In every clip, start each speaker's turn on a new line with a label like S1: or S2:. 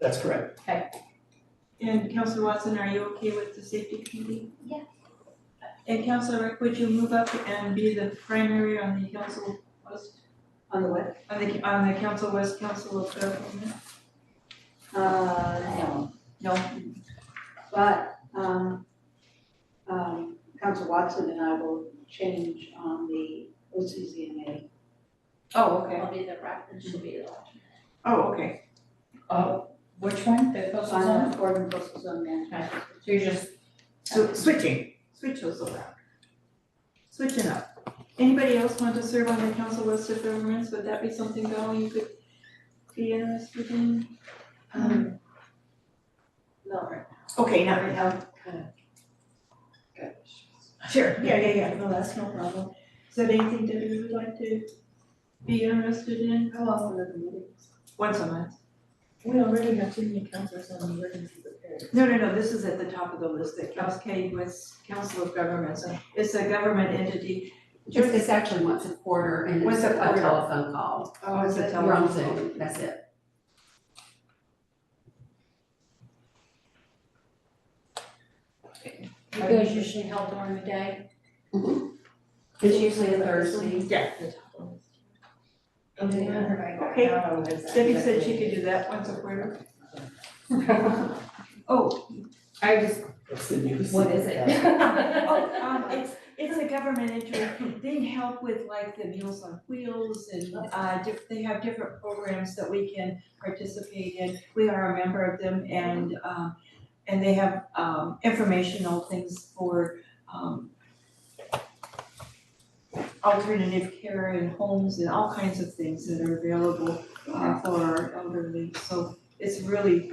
S1: That's correct.
S2: And Counselor Watson, are you okay with the safety committee?
S3: Yeah.
S2: And Counselor Rick, would you move up and be the primary on the council west,
S4: On the what?
S2: on the, on the council west council of government?
S4: Uh, no,
S2: No.
S4: but, um, um, Council Watson and I will change on the OCZMA.
S2: Oh, okay.
S3: I'll be the rep and she'll be the alternate.
S2: Oh, okay.
S5: Uh, which one, the coastal
S4: On
S5: zone?
S4: the Board of Coastal Zone Management.
S5: So you're just,
S2: So switching, switch those around. Switching up. Anybody else want to serve on the council west of governments? Would that be something, Val, you could be interested in? Um,
S4: Miller.
S2: okay, not right now. uh, Sure, yeah, yeah, yeah, no, that's no problem. Is that anything that you would like to be interested in?
S4: How often are the meetings?
S2: Once a month.
S5: we already have too many counselors on the emergency preparedness.
S2: No, no, no, this is at the top of the list, that Cascade was Council of Governments, and it's a government entity.
S6: It's, it's actually once a quarter and
S2: Once
S6: it's
S2: a
S6: a
S2: quarter.
S6: telephone call.
S2: Oh, it's a
S6: We're on
S2: telephone.
S6: Zoom, that's it.
S3: You guys usually held during the day?
S6: It's usually a Thursday.
S2: Yeah. Okay. Debbie
S6: Debbie
S2: said she could do that once a quarter. Oh,
S6: I just,
S1: That's the news.
S6: what is it?
S2: oh, um, it's, it's a government entity, they help with like the Meals on Wheels and, uh, diff- they have different programs that we can participate in. We are a member of them and, um, and they have, um, informational things for, um, alternative care and homes and all kinds of things that are available, uh, for our elderly, so it's really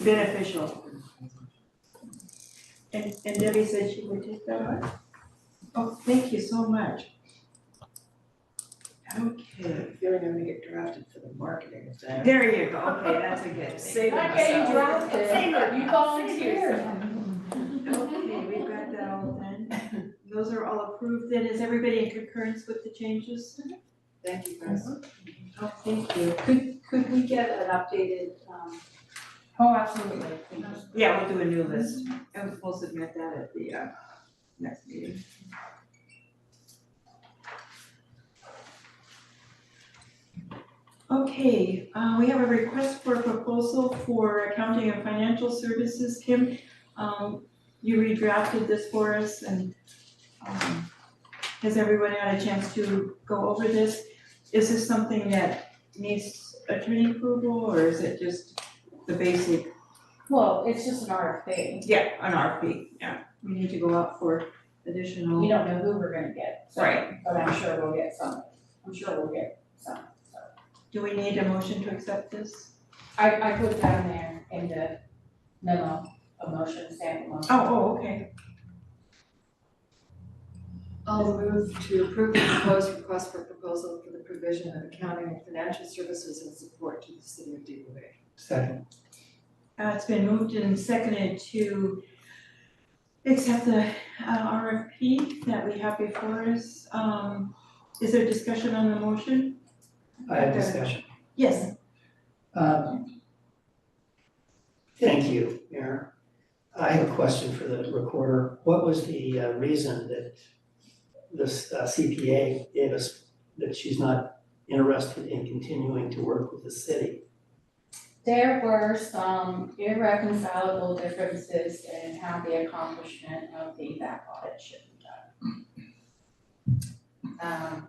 S2: beneficial. And, and Debbie said she would take that on. Oh, thank you so much. Okay,
S7: feeling I'm gonna get drafted for the marketing of that.
S2: there you go, okay, that's a good thing.
S5: Okay, you dropped it, you volunteered.
S2: Okay, we've got that all done. Those are all approved, then is everybody in concurrence with the changes?
S4: Thank you guys.
S2: Oh, thank you.
S4: Could, could we get an updated, um,
S5: Oh, absolutely.
S2: Yeah, we'll do a new list, and we'll submit that at the, uh, next meeting. Okay, uh, we have a request for proposal for accounting and financial services, Kim. Um, you redrafted this for us and, um, has everyone had a chance to go over this? Is this something that needs attorney approval, or is it just the basic
S5: Well, it's just an RFP.
S2: yeah, an RFP, yeah, we need to go out for
S5: We
S2: additional,
S5: don't know who we're gonna get, so,
S2: Right.
S5: but I'm sure we'll get some. I'm sure we'll get some, so.
S2: do we need a motion to accept this?
S5: I, I put that in there in the memo, a motion, standing motion.
S2: Oh, oh, okay.
S6: Oh.
S7: I'll move to approve the proposed request for proposal for the provision of accounting and financial services and support to the city of DuBois.
S1: Second,
S2: Uh, it's been moved and seconded to accept the uh RFP that we have before us, um, is there discussion on the motion?
S1: I have discussion.
S2: Yes.
S1: Um, Thank you, Mayor. I have a question for the recorder. What was the uh, reason that this uh, CPA gave us that she's not interested in continuing to work with the city?
S5: There were some irreconcilable differences in how the accomplishment of the back audit should be done. Um,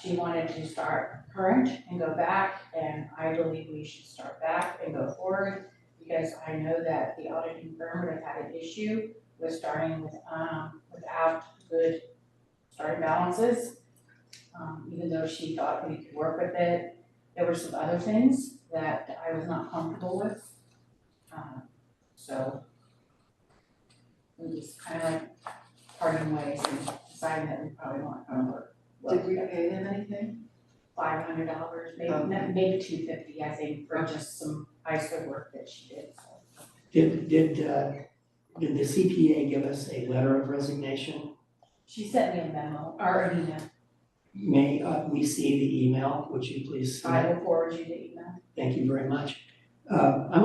S5: she wanted to start current and go back, and I believe we should start back and go forward because I know that the auditing firm would have had an issue with starting with, um, without good starting balances. Um, even though she thought we could work with it, there were some other things that I was not comfortable with. Um, so we just kind of like parting ways and deciding that we probably want to work.
S7: Did we pay them anything?
S5: Five hundred dollars, maybe,
S7: Okay.
S5: maybe two fifty, I think, for just some ISO work that she did, so.
S1: Did, did, uh, did the CPA give us a letter of resignation?
S5: She sent me a memo, or an email,
S1: May uh, we see the email? Would you please?
S5: I will forward you the email.
S1: Thank you very much. Uh, I'm